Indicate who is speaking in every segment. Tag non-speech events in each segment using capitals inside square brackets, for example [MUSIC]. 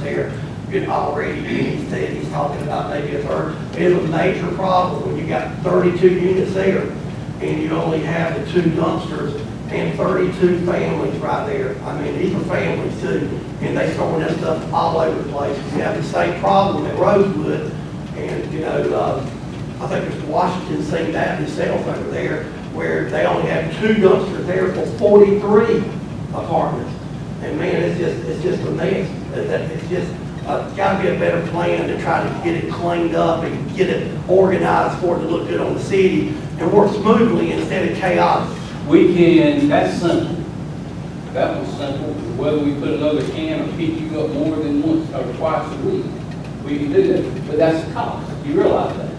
Speaker 1: there, been already, he's, he's talking about maybe a third. It's a major problem when you got thirty-two units there, and you only have the two dumpsters and thirty-two families right there. I mean, these are families too, and they throwing that stuff all over the place. We have the same problem at Rosewood, and, you know, uh, I think Mr. Washington's seen that himself over there, where they only have two dumpsters there for forty-three apartments. And man, it's just, it's just a mess. That- that- It's just, uh, gotta be a better plan to try to get it cleaned up and get it organized for it to look good on the city and work smoothly instead of chaos.
Speaker 2: We can, that's simple. That one's simple, whether we put another can or pick you up more than once or twice a week, we can do that, but that's a cost, you realize that?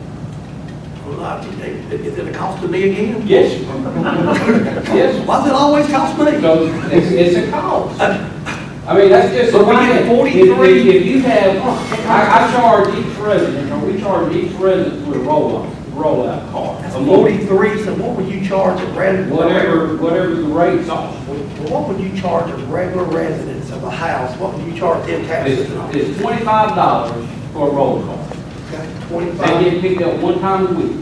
Speaker 1: Well, I think that- Is it a cost to me again?
Speaker 2: Yes. [LAUGHS] Yes,
Speaker 1: Why does it always cost me?
Speaker 2: so it's, it's a cost. I mean, that's just.
Speaker 1: But we
Speaker 2: one
Speaker 1: get Oh,
Speaker 2: thing. If-
Speaker 1: 43.
Speaker 2: If, if you have, I, I charge each resident, or we charge each resident with a roll-up, rollout card.
Speaker 1: That's
Speaker 2: a month.
Speaker 1: forty-three, so what would you charge a rent?
Speaker 2: Whatever, whatever the rates are.
Speaker 1: Well, What would you charge a regular residents of a house, what would you charge them taxes
Speaker 2: It's,
Speaker 1: on?
Speaker 2: it's twenty-five dollars for a roll call. They
Speaker 1: Twenty-five,
Speaker 2: get picked up one time a week.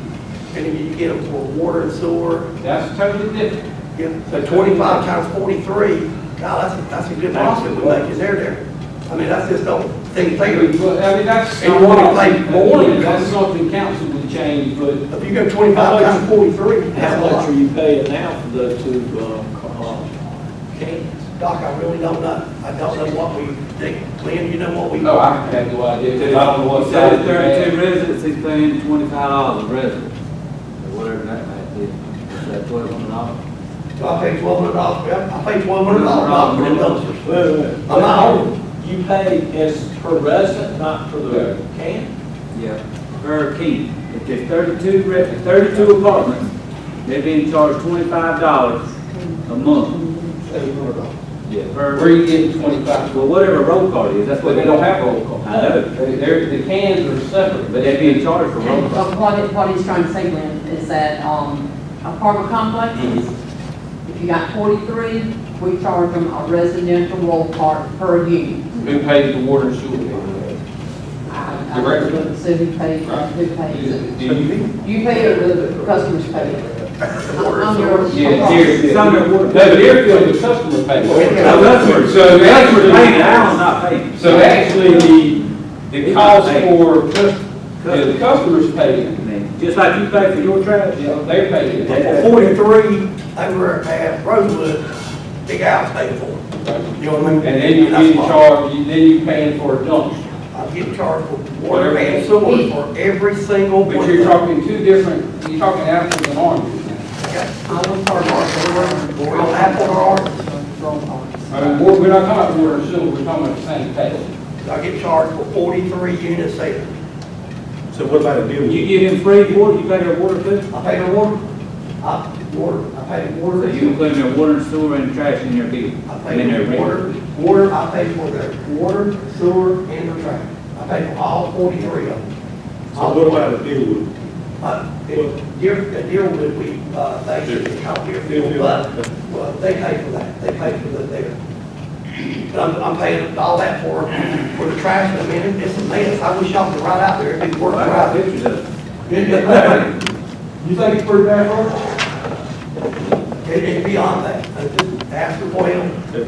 Speaker 1: and if you get them for water and sewer,
Speaker 2: That's totally different.
Speaker 1: yeah, so twenty-five times forty-three, God, that's, that's a good profit we make, is there there? I mean, that's just don't think,
Speaker 2: I
Speaker 1: think,
Speaker 2: mean, but, I mean, that's.
Speaker 1: And you wanna pay more than-
Speaker 2: That's something council would change, but
Speaker 1: if you go twenty-five times forty-three,
Speaker 3: How
Speaker 1: that's a
Speaker 3: much are
Speaker 1: lot.
Speaker 3: you paying now for those two, uh, co- uh, cans?
Speaker 1: Doc, I really don't know, I don't know what we think, Glenn, you know what we?
Speaker 2: no, oh, I have no idea.
Speaker 4: If
Speaker 2: I don't know what
Speaker 4: said
Speaker 2: size
Speaker 4: it's
Speaker 2: they're at.
Speaker 4: thirty-two residents, he's paying twenty-five dollars a resident, or whatever that might be, is that twelve hundred dollars?
Speaker 1: Do I pay twelve hundred dollars, I pay twelve hundred dollars for them dumpsters.
Speaker 3: Wait, wait, wait.
Speaker 1: I'm out.
Speaker 3: You pay as per resident, not for the can?
Speaker 4: Yeah, per key. If there's thirty-two, re- if thirty-two apartments, they're being charged twenty-five dollars a month. Yeah.
Speaker 2: Where
Speaker 4: Per,
Speaker 2: you getting twenty-five?
Speaker 4: well, whatever roll card is, that's
Speaker 2: But
Speaker 4: what
Speaker 2: they don't have roll call.
Speaker 4: I know,
Speaker 2: They- They're, the cans are separate,
Speaker 4: but
Speaker 2: but
Speaker 4: they're
Speaker 2: they
Speaker 4: being charged for roll call.
Speaker 5: But what it, what he's trying to say, Glenn, is that, um, apartment complexes,
Speaker 2: Mm-hmm.
Speaker 5: if you got forty-three, we charge them a residential roll card per unit.
Speaker 2: who pays the water and sewer? bill?
Speaker 5: I- I
Speaker 2: Correct.
Speaker 5: wouldn't say who pays, who pays
Speaker 2: Do
Speaker 5: it.
Speaker 2: do you?
Speaker 5: You pay it, or the customers pay it. I'm your-
Speaker 2: Yeah,
Speaker 4: Deerfield.
Speaker 2: Deerfield. No, Deerfield, the customer pays.
Speaker 4: Now, that's where-
Speaker 2: So
Speaker 4: that's where
Speaker 2: actually-
Speaker 4: paying, I'm not paying.
Speaker 2: So actually, the, the cost for, cus- the customers paying,
Speaker 4: Just like you pay for your trash.
Speaker 2: they're paying. it.
Speaker 1: For forty-three over at Rosewood, big house paid for. it. You know what I mean?
Speaker 2: And then you
Speaker 1: That's
Speaker 2: get
Speaker 1: why
Speaker 2: charged, you- then you paying for a dumpster.
Speaker 1: I'm getting charged for water and sewer for every single one.
Speaker 2: But you're talking two different, you're talking apples and oranges now.
Speaker 1: I want part of our, we're on apple or
Speaker 5: Roll cards.
Speaker 2: I mean, we're, we're not talking about water and sewer, we're talking about sanitation.
Speaker 1: orange. I get charged for forty-three units there.
Speaker 3: So what about a building?
Speaker 4: You give him free water, you pay their water too?
Speaker 1: I pay the water, I, water, I pay the
Speaker 4: So
Speaker 1: water.
Speaker 4: you include their water and sewer and trash in your bill?
Speaker 1: I
Speaker 4: And
Speaker 1: pay
Speaker 4: their
Speaker 1: for
Speaker 4: rent?
Speaker 1: water, water, I pay for their water, sewer, and their trash. I pay for all forty-three of them.
Speaker 3: So what about a building?
Speaker 1: Uh, it- Deer, the Deerwood, we, uh, they should be called Deerfield, but, well, they pay for that, they pay for that there. But I'm, I'm paying all that for, for the trash, I mean, it's a mess, I wish y'all could ride out there, it'd be worth
Speaker 4: Well, I
Speaker 1: it
Speaker 4: got
Speaker 1: out
Speaker 4: pictures of
Speaker 1: there. You think it's pretty bad, Roger? It, it's beyond that, Uh, just ask the boy,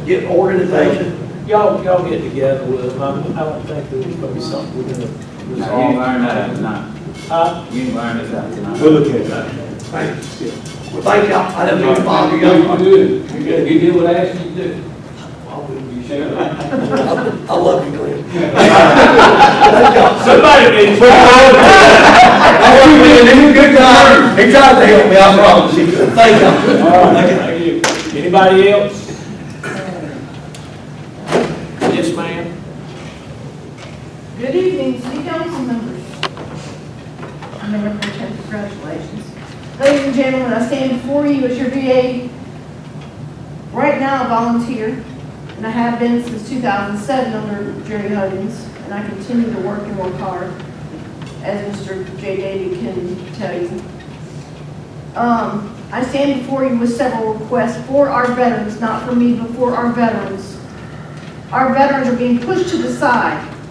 Speaker 1: get organization,
Speaker 3: Y'all, y'all get together with them, I I don't think that it's gonna be something we're gonna
Speaker 4: it. You
Speaker 3: resolve.
Speaker 4: ain't iron that out tonight.
Speaker 3: Huh?
Speaker 4: You ain't iron this out tonight.
Speaker 3: We'll look at that.
Speaker 1: thanks. Well, thank y'all, I didn't mean to bother
Speaker 2: You
Speaker 1: y'all.
Speaker 2: do, you do, you do what I ask you to do.
Speaker 1: I will.
Speaker 2: You share.
Speaker 1: I love you, Glenn. [LAUGHS]
Speaker 4: Somebody been.
Speaker 1: He tried to help me, I promise you. Thank you.
Speaker 3: All right, thank you. Anybody else? Yes, ma'am.
Speaker 6: Good evening, city council members. I'm Mayor Pro Tem, congratulations. Ladies and gentlemen, I stand before you as your VA. Right now, a volunteer, and I have been since 2007 under Jerry Huggins, and I continue to work and work hard, as Mr. J. Davy can tell you. Um, I stand before you with several requests for our veterans, not for me, but for our veterans Our veterans are being pushed to the side.